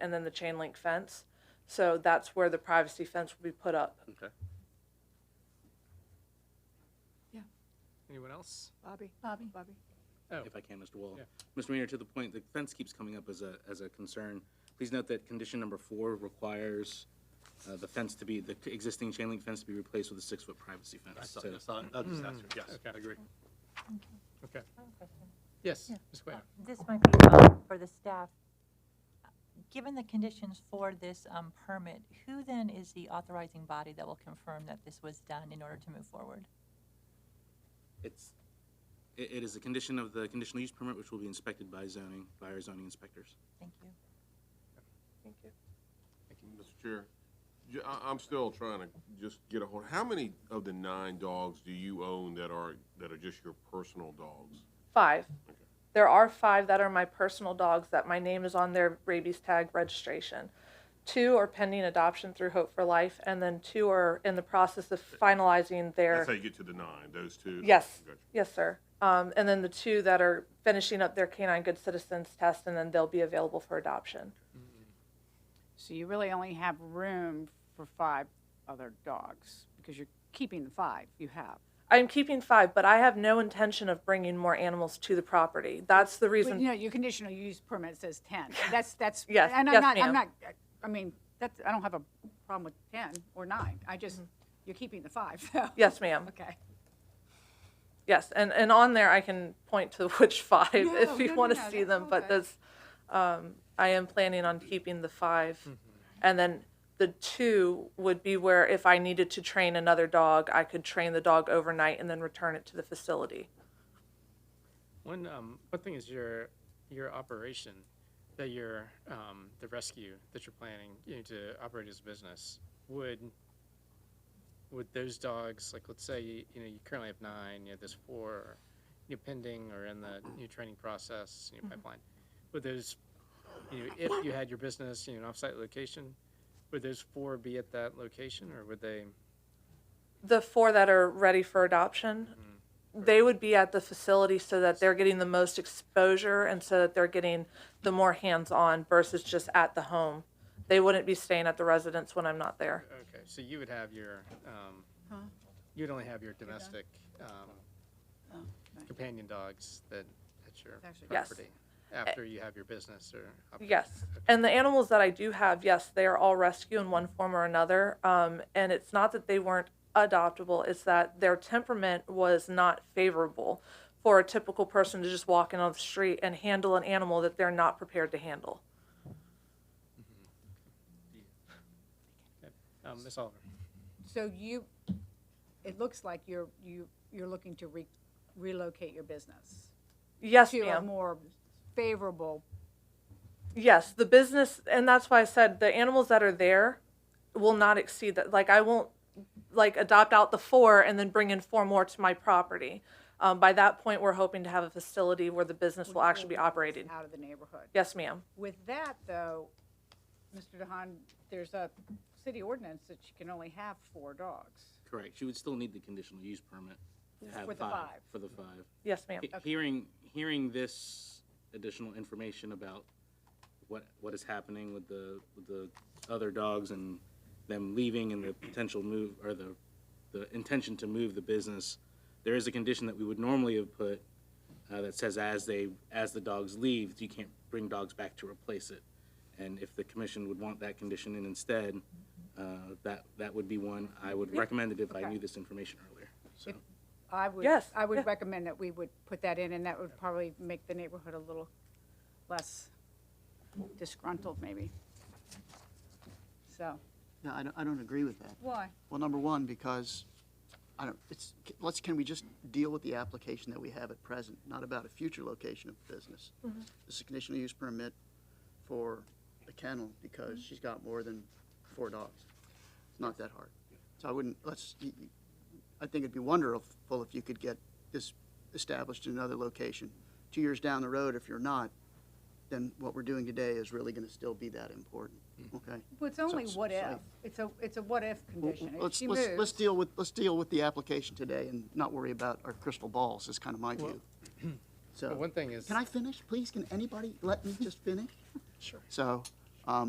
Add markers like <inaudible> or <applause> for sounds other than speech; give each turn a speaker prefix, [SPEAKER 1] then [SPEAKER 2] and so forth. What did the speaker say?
[SPEAKER 1] and then the chain link fence. So that's where the privacy fence will be put up.
[SPEAKER 2] Okay.
[SPEAKER 3] Anyone else?
[SPEAKER 4] Bobby? Bobby. Bobby.
[SPEAKER 3] Oh,
[SPEAKER 2] If I can, Mr. Wall.
[SPEAKER 3] Yeah.
[SPEAKER 2] Mr. Mayor, to the point, the fence keeps coming up as a, as a concern. Please note that condition number four requires uh, the fence to be, the existing chain link fence to be replaced with a six-foot privacy
[SPEAKER 5] I
[SPEAKER 2] fence.
[SPEAKER 5] saw,
[SPEAKER 2] So-
[SPEAKER 5] I saw, I'll just ask her, yes, I
[SPEAKER 3] Okay.
[SPEAKER 5] agree.
[SPEAKER 3] okay.
[SPEAKER 6] One question.
[SPEAKER 3] Yes,
[SPEAKER 4] Yeah.
[SPEAKER 3] Ms. Cueto.
[SPEAKER 6] This might be uh, for the staff. Given the conditions for this um, permit, who then is the authorizing body that will confirm that this was done in order to move forward?
[SPEAKER 2] It's, it it is a condition of the conditional use permit, which will be inspected by zoning, by our zoning inspectors.
[SPEAKER 6] Thank you.
[SPEAKER 1] Thank you.
[SPEAKER 7] Mr. Chair, j- I, am still trying to just get a hold, how many of the nine dogs do you own that are, that are just your personal dogs?
[SPEAKER 1] Five. There are five that are my personal dogs that my name is on their rabies tag registration. Two are pending adoption through Hope for Life, and then two are in the process of finalizing their.
[SPEAKER 7] That's how you get to the nine, those two?
[SPEAKER 1] Yes,
[SPEAKER 7] Gotcha.
[SPEAKER 1] yes, sir. Um, and then the two that are finishing up their canine good citizens test, and then they'll be available for adoption.
[SPEAKER 4] So you really only have room for five other dogs because you're keeping the five you have.
[SPEAKER 1] I'm keeping five, but I have no intention of bringing more animals to the property. That's the
[SPEAKER 4] Well, you
[SPEAKER 1] reason.
[SPEAKER 4] know, your conditional use permit says 10. That's, that's.
[SPEAKER 1] Yes,
[SPEAKER 4] and I'm
[SPEAKER 1] yes,
[SPEAKER 4] not-
[SPEAKER 1] ma'am.
[SPEAKER 4] I'm not, I mean, that's, I don't have a problem with 10 or nine. I
[SPEAKER 1] Mm-hmm.
[SPEAKER 4] just, you're keeping the five, <laughs> so.
[SPEAKER 1] Yes, ma'am.
[SPEAKER 4] Okay.
[SPEAKER 1] Yes, and, and on there I can point to <laughs> which five
[SPEAKER 4] No,
[SPEAKER 1] if
[SPEAKER 4] no,
[SPEAKER 1] you
[SPEAKER 4] no,
[SPEAKER 1] want to
[SPEAKER 4] no,
[SPEAKER 1] see
[SPEAKER 4] that's
[SPEAKER 1] them,
[SPEAKER 4] all
[SPEAKER 1] but
[SPEAKER 4] good.
[SPEAKER 1] this, um, I am planning on keeping the five. And then the two would be where if I needed to train another dog, I could train the dog overnight and then return it to the facility.
[SPEAKER 3] One, um, one thing is your, your operation, that your, um, the rescue that you're planning, you know, to operate as a business, would, would those dogs, like, let's say, you know, you currently have nine, you know, there's four, you know, pending or in the new training process, new pipeline, would those, you know, if you had your business, you know, an off-site location, would those four be at that location, or would they?
[SPEAKER 1] The four that are ready for adoption, they would be at the facility so that they're getting the most exposure and so that they're getting the more hands-on versus just at the home. They wouldn't be staying at the residence when I'm not there.
[SPEAKER 3] Okay, so you would have your, um, you'd only have your domestic um,
[SPEAKER 4] Oh, right.
[SPEAKER 3] companion dogs that, at your
[SPEAKER 4] Actually-
[SPEAKER 1] Yes.
[SPEAKER 3] property? After you have your business or? operation?
[SPEAKER 1] Yes.
[SPEAKER 3] Okay.
[SPEAKER 1] And the animals that I do have, yes, they are all rescue in one form or another. Um, and it's not that they weren't adoptable, it's that their temperament was not favorable for a typical person to just walk in on the street and handle an animal that they're not prepared to handle.
[SPEAKER 3] Um, Ms. Oliver?
[SPEAKER 4] So you, it looks like you're, you, you're looking to re- relocate your business
[SPEAKER 1] Yes,
[SPEAKER 4] to a
[SPEAKER 1] ma'am.
[SPEAKER 4] more favorable,
[SPEAKER 1] Yes, the business, and that's why I said the animals that are there will not exceed that. Like I won't like adopt out the four and then bring in four more to my property. Um, by that point, we're hoping to have a facility where the business will actually be operated.
[SPEAKER 4] out of the neighborhood.
[SPEAKER 1] Yes, ma'am.
[SPEAKER 4] With that, though, Mr. DeHaan, there's a city ordinance that you can only have four dogs.
[SPEAKER 2] Correct. She would still need the conditional use permit. to have
[SPEAKER 4] For the five.
[SPEAKER 2] For the five.
[SPEAKER 1] Yes, ma'am.
[SPEAKER 2] He- Hearing, hearing this additional information about what, what is happening with the, with the other dogs and them leaving and the potential move, or the, the intention to move the business, there is a condition that we would normally have put uh, that says as they, as the dogs leave, you can't bring dogs back to replace it. And if the commission would want that condition in instead, uh, that, that would be one. I would recommend it if I
[SPEAKER 4] Okay.
[SPEAKER 2] knew this information earlier, so.
[SPEAKER 4] I would,
[SPEAKER 1] Yes,
[SPEAKER 4] I
[SPEAKER 1] yeah.
[SPEAKER 4] would recommend that we would put that in, and that would probably make the neighborhood a little less disgruntled, maybe. So.
[SPEAKER 8] No, I don't, I don't agree with that.
[SPEAKER 4] Why?
[SPEAKER 8] Well, number one, because, I don't, it's, let's, can we just deal with the application that we have at present, not about a future location of the business? This is a conditional use permit for a kennel, because she's got more than four dogs. It's not that hard. So I wouldn't, let's, y- y- I think it'd be wonderful if you could get this established in another location. Two years down the road, if you're not, then what we're doing today is really gonna still be that important,
[SPEAKER 2] Hmm.
[SPEAKER 8] okay?
[SPEAKER 4] Well, it's only
[SPEAKER 8] so-
[SPEAKER 4] what
[SPEAKER 8] so-
[SPEAKER 4] if. It's a, it's a what if
[SPEAKER 8] Well,
[SPEAKER 4] condition. If
[SPEAKER 8] Let's,
[SPEAKER 4] she
[SPEAKER 8] let's, let's
[SPEAKER 4] moves,
[SPEAKER 8] deal with, let's deal with the application today and not worry about our crystal balls, is kind of my view.
[SPEAKER 3] Well, <clears throat>
[SPEAKER 8] So,
[SPEAKER 3] One thing is.
[SPEAKER 8] can I finish, please? Can anybody let me just finish? Sure. So, um,